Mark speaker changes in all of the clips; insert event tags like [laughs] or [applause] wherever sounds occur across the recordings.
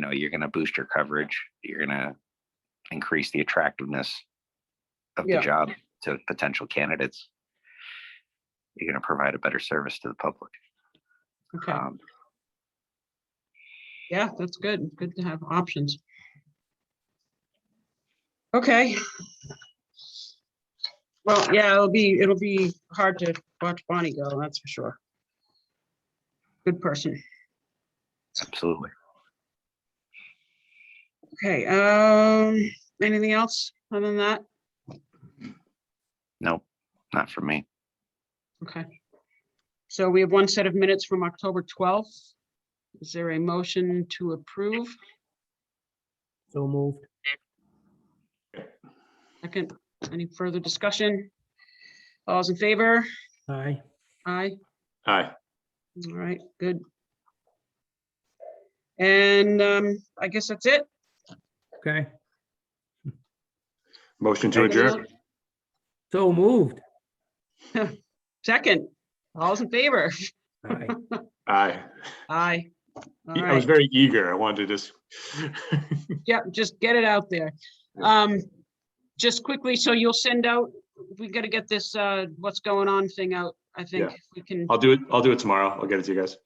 Speaker 1: know, you're going to boost your coverage. You're going to increase the attractiveness of
Speaker 2: Yeah.
Speaker 1: the job to potential candidates. You're going to provide a better service to the public.
Speaker 2: Okay,
Speaker 1: Um,
Speaker 2: yeah, that's good. Good to have options. Okay. Well, yeah, it'll be, it'll be hard to watch Bonnie go, that's for sure. Good person.
Speaker 1: absolutely.
Speaker 2: Okay, um, anything else other than that?
Speaker 1: Nope, not for me.
Speaker 2: Okay. So we have one set of minutes from October 12th. Is there a motion to approve?
Speaker 3: So moved.
Speaker 2: Second, any further discussion? All's in favor?
Speaker 3: Aye.
Speaker 2: Aye.
Speaker 4: Aye.
Speaker 2: All right, good. And um, I guess that's it.
Speaker 3: Okay.
Speaker 4: Motion to adjourn.
Speaker 3: So moved.
Speaker 2: Second, all's in favor?
Speaker 3: Aye.
Speaker 4: Aye.
Speaker 2: Aye. All
Speaker 4: I
Speaker 2: right,
Speaker 4: was very eager. I wanted to just. [laughs]
Speaker 2: yeah, just get it out there. Um, just quickly, so you'll send out, we gotta get this, uh, what's going on thing out, I think.
Speaker 4: Yeah. Uh,
Speaker 2: if We can
Speaker 4: I'll do it. I'll do it tomorrow. I'll get it to you guys.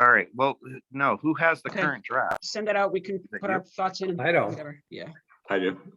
Speaker 1: All right, well, no, who has the
Speaker 2: Okay.
Speaker 1: current draft?
Speaker 2: send it out, we can
Speaker 1: Thank
Speaker 2: put
Speaker 1: you.
Speaker 2: our thoughts in. and
Speaker 3: I don't.
Speaker 2: whatever, Yeah,
Speaker 4: I do.